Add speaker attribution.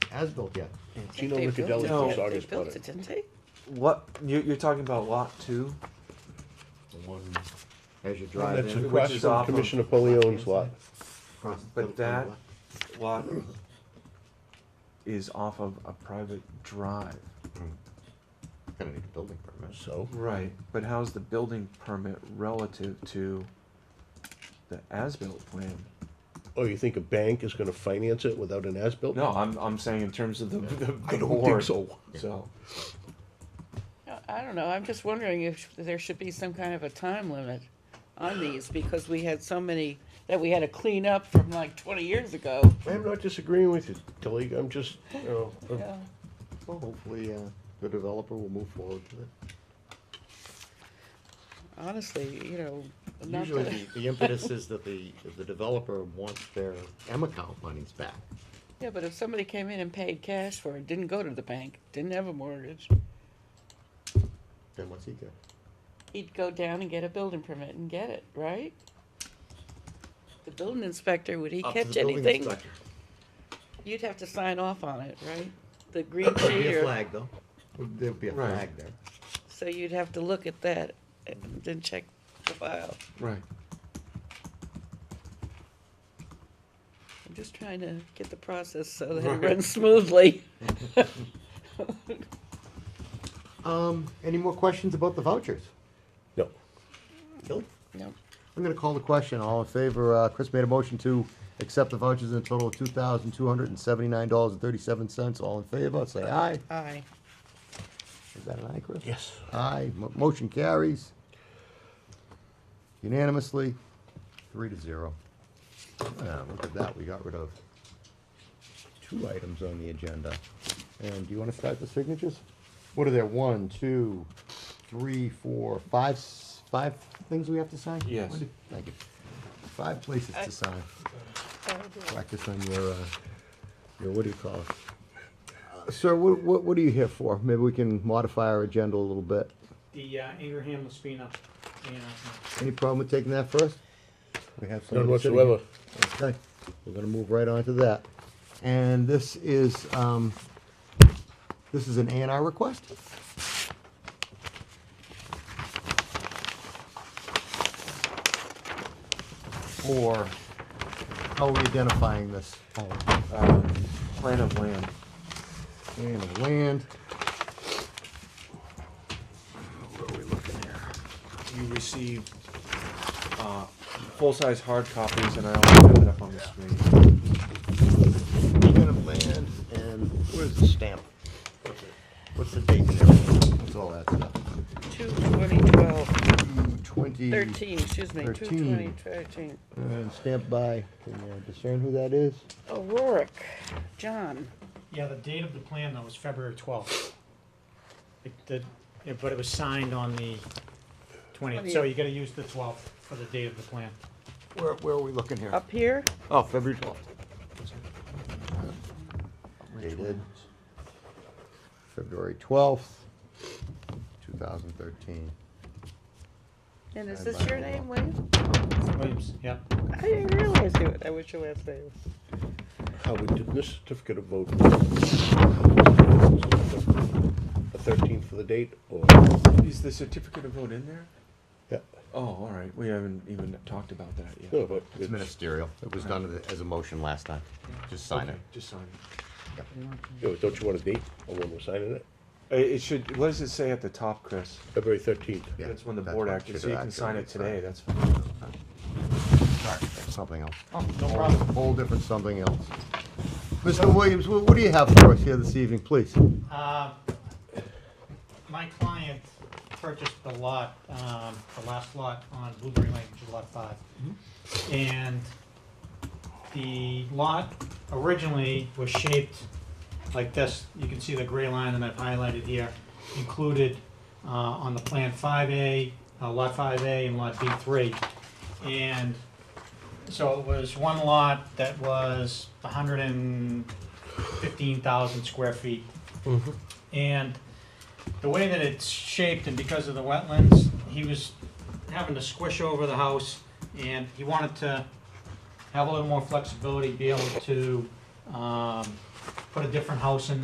Speaker 1: as-built yet.
Speaker 2: Gino
Speaker 3: They
Speaker 2: Riccatelli
Speaker 3: built it.
Speaker 2: from
Speaker 3: They
Speaker 2: Saugus
Speaker 3: built
Speaker 2: bought
Speaker 3: it,
Speaker 2: it.
Speaker 3: didn't they?
Speaker 4: What you, you're talking about? Lot two.
Speaker 1: The one as you drive
Speaker 2: That's
Speaker 1: in.
Speaker 2: across
Speaker 4: Which is
Speaker 2: from
Speaker 4: off of-
Speaker 2: Commissioner Polione's lot.
Speaker 1: across the-
Speaker 4: But that lot is off of a private drive.
Speaker 1: Gonna need a building permit.
Speaker 2: So,
Speaker 4: Right. But how's the building permit relative to the as-built plan?
Speaker 2: oh, you think a bank is gonna finance it without an as-built?
Speaker 4: No, I'm, I'm saying in terms of the, the,
Speaker 2: I
Speaker 4: the
Speaker 2: don't think
Speaker 4: board.
Speaker 2: so.
Speaker 4: So,
Speaker 3: No, I don't know, I'm just wondering if there should be some kind of a time limit on these, because we had so many that we had to clean up from like twenty years ago.
Speaker 2: I'm not disagreeing with you, Tilly, I'm just, you know,
Speaker 3: Yeah.
Speaker 1: Well, hopefully, uh, the developer will move forward with it.
Speaker 3: Honestly, you know, not
Speaker 1: Usually,
Speaker 3: that,
Speaker 1: the- the impetus is that the, the developer wants their M account monies back.
Speaker 3: yeah, but if somebody came in and paid cash for it, didn't go to the bank, didn't have a mortgage,
Speaker 1: Then what's he get?
Speaker 3: he'd go down and get a building permit and get it, right? The building inspector, would he
Speaker 1: Up to the
Speaker 3: catch
Speaker 1: building
Speaker 3: anything?
Speaker 1: inspector.
Speaker 3: You'd have to sign off on it, right? The green
Speaker 1: There'd be
Speaker 3: sheet
Speaker 1: a
Speaker 3: or,
Speaker 1: flag, though. There'd be a
Speaker 4: Right.
Speaker 1: flag there.
Speaker 3: so you'd have to look at that and then check the file.
Speaker 4: right.
Speaker 3: I'm just trying to get the process so that it runs smoothly.
Speaker 1: Um, any more questions about the vouchers?
Speaker 2: no.
Speaker 1: Nope.
Speaker 3: No.
Speaker 1: I'm gonna call the question. All in favor, uh, Chris made a motion to accept the vouchers in a total of two thousand two hundred and seventy-nine dollars and thirty-seven cents. All in favor, say aye.
Speaker 3: Aye.
Speaker 1: Is that an aye, Chris?
Speaker 2: Yes.
Speaker 1: Aye. Mo- Motion carries unanimously, three to zero. Ah, look at that. We got rid of two items on the agenda. And do you wanna start the signatures? What are there? One, two, three, four, five, s- five things we have to sign?
Speaker 4: Yes.
Speaker 1: Wendy? Thank you. Five places to sign. Practice on your, uh, your, what do you call it? Uh, Sir, what, what, what are you here for? Maybe we can modify our agenda a little bit.
Speaker 5: The uh, Ingraham uh, Laspina. announcement.
Speaker 1: Any problem with taking that first? We have
Speaker 2: None
Speaker 1: somebody sitting here.
Speaker 2: whatsoever.
Speaker 1: Okay, we're gonna move right on to that. And this is, um, this is an A and R request? Or, how are we identifying this? Oh,
Speaker 4: Um, plan of land.
Speaker 1: Land of land. Where are we looking here?
Speaker 4: You received uh, full-size hard copies, and I also have it up on the screen.
Speaker 1: Plan of land and. Where's the stamp? What's the date and everything? What's all that stuff?
Speaker 3: Two twenty twelve,
Speaker 1: Twenty.
Speaker 3: thirteen, excuse me, two twenty
Speaker 1: Thirteen.
Speaker 3: thirteen.
Speaker 1: And stamped by, can you discern who that is?
Speaker 3: O'Rourke, John.
Speaker 5: Yeah, the date of the plan though was February twelfth. It, the, yeah, but it was signed on the twentieth, so you gotta use the twelfth for the date of the plan.
Speaker 1: Where, where are we looking here?
Speaker 3: Up here?
Speaker 4: Oh, February twelfth.
Speaker 1: Dated February twelfth, two thousand thirteen.
Speaker 3: And is
Speaker 1: Signed
Speaker 3: this
Speaker 1: by
Speaker 3: your
Speaker 1: O'Rourke.
Speaker 3: name, William?
Speaker 5: Williams, yep.
Speaker 3: I didn't realize you, I wish your last name.
Speaker 2: How we did this certificate of vote. The thirteenth for the date, or,
Speaker 4: Is the certificate of vote in there?
Speaker 2: yeah,
Speaker 4: Oh, all right. We haven't even talked about that yet.
Speaker 2: no, but
Speaker 1: It's
Speaker 2: it's,
Speaker 1: ministerial. It was done as a motion last time. Just sign it.
Speaker 4: Okay, Just sign it.
Speaker 2: you know, don't you want a date on when we're signing it?
Speaker 4: Uh, It should. What does it say at the top, Chris?
Speaker 2: February thirteenth.
Speaker 1: Yeah,
Speaker 4: that's when the
Speaker 1: that's
Speaker 4: board
Speaker 1: what
Speaker 4: acted.
Speaker 1: should
Speaker 4: So you
Speaker 1: have
Speaker 4: can sign
Speaker 1: actually
Speaker 4: it today.
Speaker 1: been
Speaker 4: That's fine.
Speaker 1: signed. Sorry, Something else.
Speaker 5: Oh, no
Speaker 1: Whole-
Speaker 5: problem.
Speaker 1: Whole different something else. Mr. Williams, wh- what do you have for us here this evening, please?
Speaker 5: Uh, My client purchased the lot, um, the last lot on Blueberry Lane, which is lot five. And the lot originally was shaped like this. You can see the gray line that I've highlighted here, included uh, on the plan five A, uh, lot five A and lot B three. And so it was one lot that was hundred and fifteen thousand square feet. And the way that it's shaped and because of the wetlands, he was having to squish over the house and he wanted to have a little more flexibility, be able to, um, put a different house in